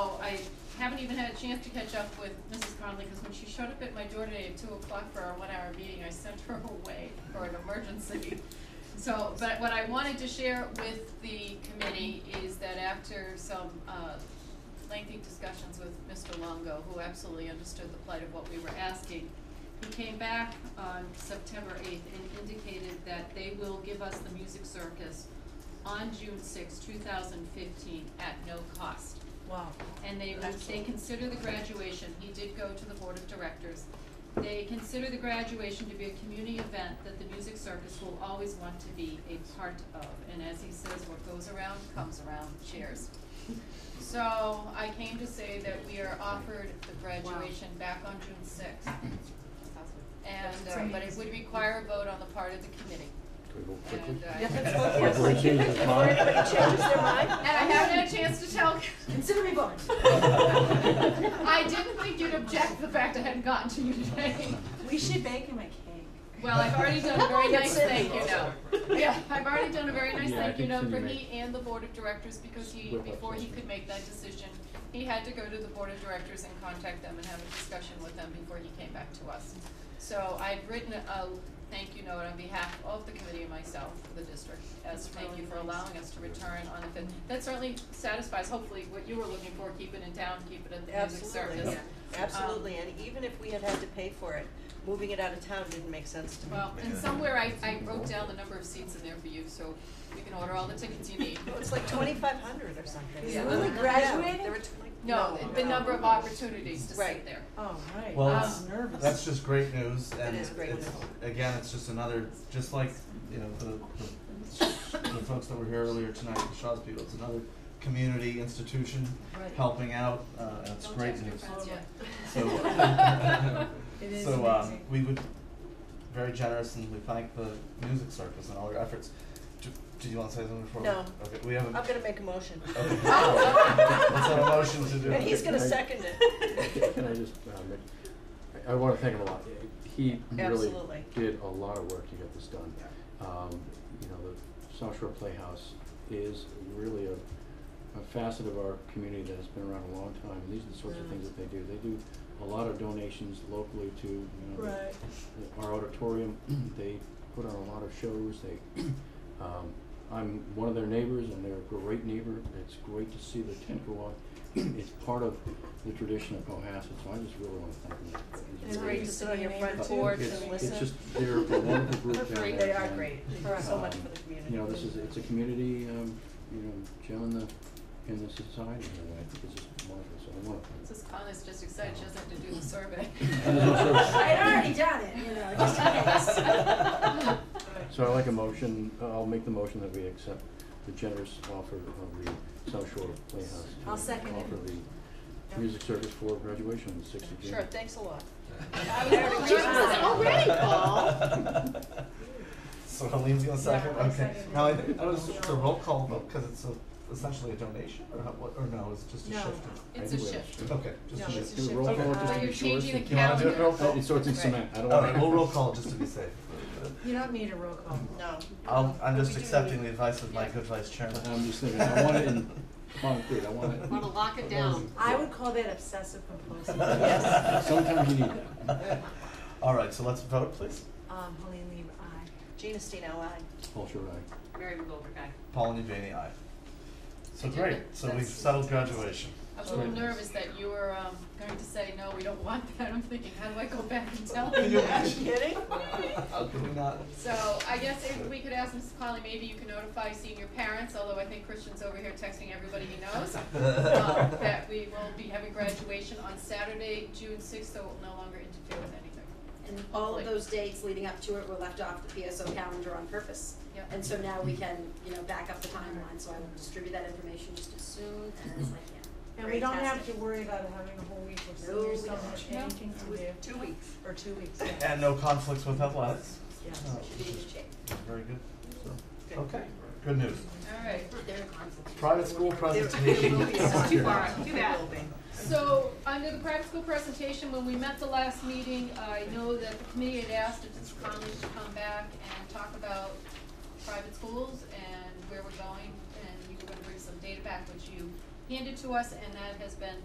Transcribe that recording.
I haven't even had a chance to catch up with Mrs. Conley, because when she showed up at my door today at two o'clock for our one-hour meeting, I sent her away for an emergency. So, but what I wanted to share with the committee is that after some, uh, lengthy discussions with Mr. Longo, who absolutely understood the plight of what we were asking, he came back on September eighth and indicated that they will give us the music circus on June sixth, two thousand fifteen, at no cost. Wow. And they, they Excellent. consider the graduation, he did go to the board of directors. They consider the graduation to be a community event that the music circus will always want to be a part of. And as he says, what goes around comes around, cheers. So I came to say that we are offered the graduation back on June sixth. And, uh, but it would require a vote on the part of the committee. Can we go quickly? And, uh, Yeah, and let's vote yes. Everybody changes their mind. Before everybody changes their mind. I haven't had a chance to tell Consider me bonus. I didn't think you'd object to the fact I hadn't gotten to you today. We should bake him a cake. Well, I've already done a very nice That's it. thank you note. Yeah, I've already done a very nice Yeah, I thank you think note Cindy for made- he and the board of directors because he, Whip up before he something. could make that decision, he had to go to the board of directors and contact them and have a discussion with them before he came back to us. So I've written a thank you note on behalf of the committee and myself, the district, as That's thank you really for nice. allowing us to return on the fifth. That certainly satisfies hopefully what you were looking for, keep it in town, keep it at the music circus. Absolutely, Um, absolutely, and even if we had had to pay for it, moving it out of town didn't make sense to me. Well, and somewhere I, I wrote down the number of seats in there for you, so you can order all the tickets you need. It was like twenty-five hundred or something. Is Yeah. Lily Yeah, graduating? There were twenty. No, the number of opportunities to sit Right. there. Um, Oh, right. Well, I it's- was nervous. That's just great news, and is great it's, news. again, it's just another, just like, you know, the, the, the folks that were here earlier tonight, the Shaw's people, it's another community institution Right. helping out, uh, and it's Don't great text your news. friends yet. So, It is uh, so, um, amazing. we would, very generous, and we thank the music circus and all your efforts. Do, did you wanna say something before? we- No. Okay, we haven't. I'm gonna make a motion, Okay, let's have a motion to do. and he's gonna second it. Can I just, um, I- I wanna thank him a lot. He really Absolutely. did a lot of work to get this done. Um, you know, the South Shore Playhouse is really a, a facet of our community that has been around a long time. These are the sorts of things that they do. They do a lot of donations locally to, you know, the- Right. our auditorium, they put on a lot of shows, they, um, I'm one of their neighbors and they're a great neighbor, it's great to see the tent go up. It's part of the tradition of Cohasset, so I just really wanna thank them. It's really- great to sit on your front It's- porch it's- and listen. It's just, they're a wonderful group down there. They are and, great, Thank you so much um, for the community. You know, this is, it's a community, um, you know, gem in the, in the society, and I think it's just wonderful, so I wanna thank them. Mrs. Khan is just excited, she doesn't have to do the survey. I'd already done it, you know, just in case. So I'd like a motion, uh, I'll make the motion that we accept the generous offer of the South Shore Playhouse. to I'll second it. Offer the music service for graduation on the sixth of June. Sure, thanks a lot. I was like, "Just already, Paul?" So Helene's gonna second, I'll okay. second Now, I it. think, that was just a roll call vote, cause it's a, essentially a donation, or how, what, or no, it's just a No. shift? It's a shift. Okay, just No, a it's shift. a shift. roll Okay. call just Well, to you're be sure? changing the You wanna do it real calendar. quick? Oh, So it's in Right. cement, I don't want Alright, we'll roll call just to be safe. You don't need a roll call. No. I'll, I'm We just do accepting need- the advice of my Yeah. good vice chairman. I'm just thinking, I want it in concrete, I want Wanna it, lock it down. I would call that obsessive compulsive. Yes. sometimes you need that. Alright, so let's vote, please. Um, Helene Lee, aye. Gina Stino, I. Paul Schubert, aye. Mary McGolder, guy. Paul and Janie, aye. So I did great, it. so we've That's- settled graduation. I was a little nervous that you were, um, going to say, no, we don't want that, I'm thinking, how do I go back and tell Can him you that? imagine? Kidding? How could we not? So I guess if we could ask Mrs. Conley, maybe you can notify senior parents, although I think Christian's over here texting everybody he knows, um, that we will be having graduation on Saturday, June sixth, so it will no longer interfere with anything. And all Hopefully. of those dates leading up to it were left off the PSO calendar on purpose. Yep. And so now we can, you know, back up the timeline, so I will distribute that information just as soon as I can. And we don't have to Fantastic. worry about having a whole week of No, senior we summer, don't. anything to do, Two weeks. or two weeks, yeah. And uh, no conflicts with athletics? Yeah. No, Should be in good shape. Very good. Good. Okay, good news. All right, There are conflicts. Private school There- there will be a presentation. It's too far. sign. Too There bad. will be. so under the private school presentation, when we met the last meeting, I know that the committee had asked if Mrs. Conley should come back and talk about private schools and where we're going, and you were gonna bring some data back, which you handed to us, and that has been